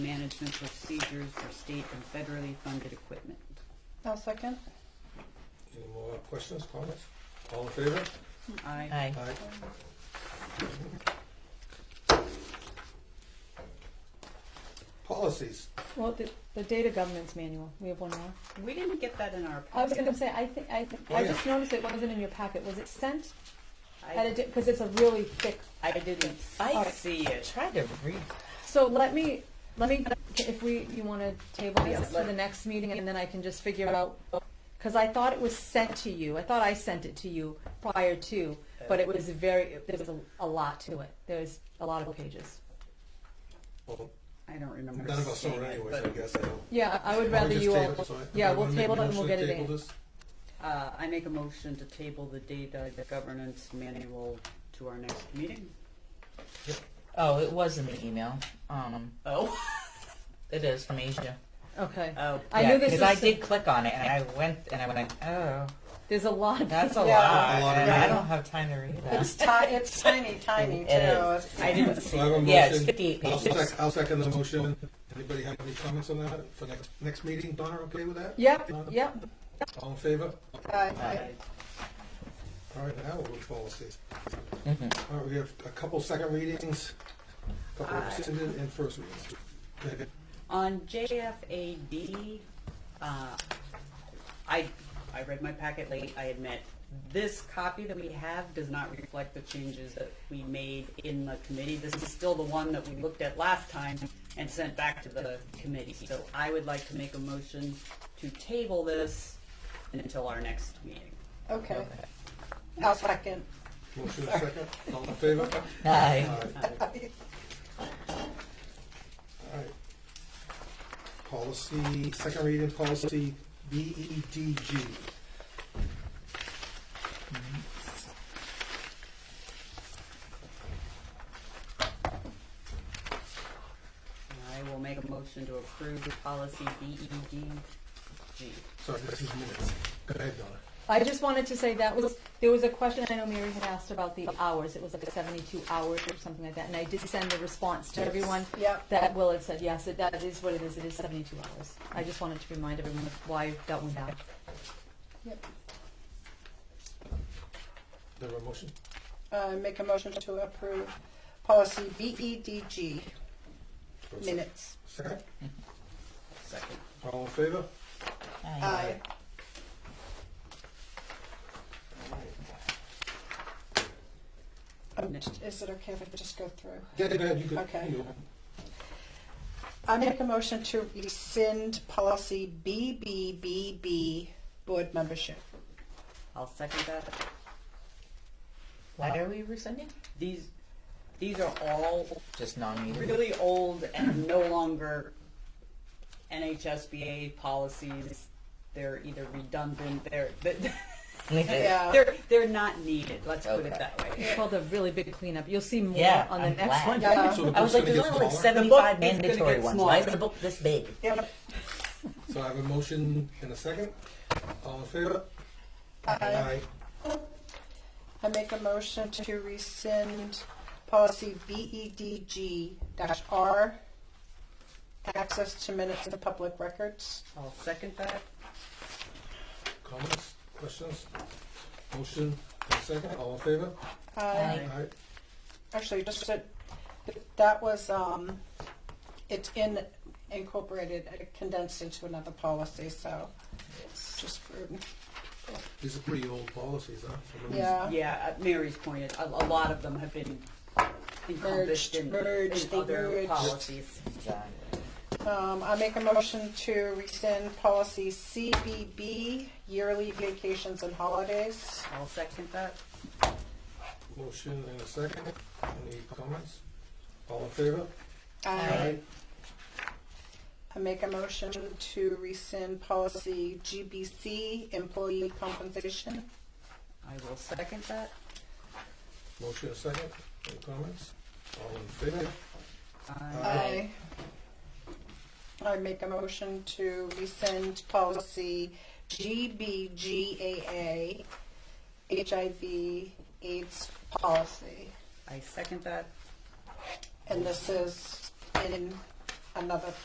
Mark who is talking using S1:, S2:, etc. S1: standards and procedures for state and federally funded equipment.
S2: I'll second.
S3: Any more questions, comments? All in favor?
S1: Aye.
S4: Aye.
S3: Aye. Policies.
S4: Well, the, the data governance manual, we have one more.
S1: We didn't get that in our
S4: I was
S1: packet.
S4: gonna say, I think, I think,
S3: Oh,
S4: I
S3: yeah.
S4: just noticed it wasn't in your packet. Was it sent? At a,
S1: I,
S4: di- cause it's a really thick.
S1: I didn't
S5: I-
S1: see it.
S5: Tried to read.
S4: So let me, let me, if we, you wanna table
S1: Yeah,
S4: this to the
S1: let-
S4: next meeting and then I can just figure out. Cause I thought it was sent to you. I thought I sent it to you prior to, but it was very, there was a, a lot to it. There's a lot of pages.
S3: Well,
S1: I don't remember.
S3: none of us saw
S1: seeing
S3: it anyways, I
S1: but,
S3: guess. I don't-
S4: Yeah, I would
S3: Why
S4: rather
S3: don't we just
S4: you all,
S3: table it, so I-
S4: yeah,
S3: I
S4: we'll
S3: wanna make a
S4: table it and we'll
S3: motion
S4: get
S3: to
S4: it
S3: table
S4: in.
S3: this.
S1: Uh, I make a motion to table the data, the governance manual to our next meeting.
S5: Oh, it was in the email. Um,
S1: Oh.
S5: it is from Asia.
S4: Okay.
S1: Oh.
S4: I
S5: Uh, Yeah,
S4: knew this
S5: because I
S4: was,
S5: did click on it and I went and I went, oh,
S4: there's a lot.
S5: that's a
S2: Yeah.
S5: lot.
S3: A lot of
S5: and I
S3: reading.
S5: don't have time to read
S2: It's
S5: that.
S2: ti- it's tiny, tiny
S5: It
S2: too.
S5: is. I didn't
S3: So I have a
S5: Yeah, it's
S3: motion.
S5: 58
S3: I'll
S5: pages.
S3: sec- I'll second the motion. Anybody have any comments on that for next, next meeting? Donna, okay with that?
S4: Yep, yep.
S3: All in favor?
S2: Aye.
S3: All right, now we'll go to policies.
S5: Mm-hmm.
S3: All right, we have a couple second readings, a
S4: Uh,
S3: couple rescinded and first readings. Go ahead.
S1: On JFAD, uh, I, I read my packet late, I admit. This copy that we have does not reflect the changes that we made in the committee. This is still the one that we looked at last time and sent back to the committee. So I would like to make a motion to table this until our next meeting.
S2: Okay. I'll second.
S3: Motion and second, all in favor? All
S5: Aye.
S3: right, all right. Policy, second reading, policy E BEDG.
S1: I will make a motion to approve the policy E BEDG.
S3: Sorry, this is minutes. Go ahead, Donna.
S4: I just wanted to say that was, there was a question I know Mary had asked about the hours. It was like seventy-two hours or something like that, and I did send the response to everyone.
S2: Yep.
S4: That Will had said, yes, it- that is what it is. It is seventy-two hours. I just wanted to remind everyone of why that went down.
S3: There were motion?
S2: Uh, make a motion to approve policy BEDG minutes.
S3: Second,
S1: Second.
S3: all in favor?
S2: Aye. Um, Is it okay if I just go through?
S3: Yeah, go ahead, you could.
S2: Okay.
S3: you know.
S2: I make a motion to rescind policy BBBB, board membership.
S1: I'll second that.
S5: Why are we rescinding?
S1: These, these are all
S5: Just non-meeting.
S1: really old and no longer NHSBA policies. They're either redundant, they're,
S2: Yeah.
S1: they're, they're not needed, let's put it that way.
S4: It's called a really big cleanup. You'll see more
S5: Yeah,
S4: on the
S5: I'm
S4: next
S5: glad.
S4: one.
S2: Yeah.
S3: So the
S5: I
S3: book's
S5: was like,
S3: gonna
S5: there's
S3: get
S5: only like
S3: smaller?
S5: seventy-five
S1: The book is gonna
S5: mandatory
S1: get
S5: ones. Why is
S1: smaller.
S5: the book this big?
S2: Yeah.
S3: So I have a motion and a second. All in favor?
S2: I I make a motion to rescind policy BEDG dash R, access to minutes and public records.
S1: I'll second that.
S3: Comments, questions? Motion and second, all in favor?
S2: Uh,
S5: Aye.
S3: Aye.
S2: actually, just that, that was, um, it's in, incorporated, uh, condensed into another policy, so just for,
S3: These are pretty old policies, huh? Some of these-
S2: yeah.
S1: Yeah, uh, Mary's pointed, a, a lot of them have been encompassed
S2: Merged,
S1: in,
S2: merged,
S1: in
S2: they
S1: other
S2: merged.
S1: policies.
S5: uh,
S2: Um, I make a motion to rescind policy CBB, yearly vacations and holidays.
S1: I'll second that.
S3: Motion and a second. Any comments? All in favor?
S2: I, I make a motion to rescind policy GBC, employee compensation.
S1: I will second that.
S3: Motion and a second. Any comments? All in favor?
S1: I
S2: I, I make a motion to rescind policy GBGAA, HIV AIDS policy.
S1: I second that.
S2: And this is in another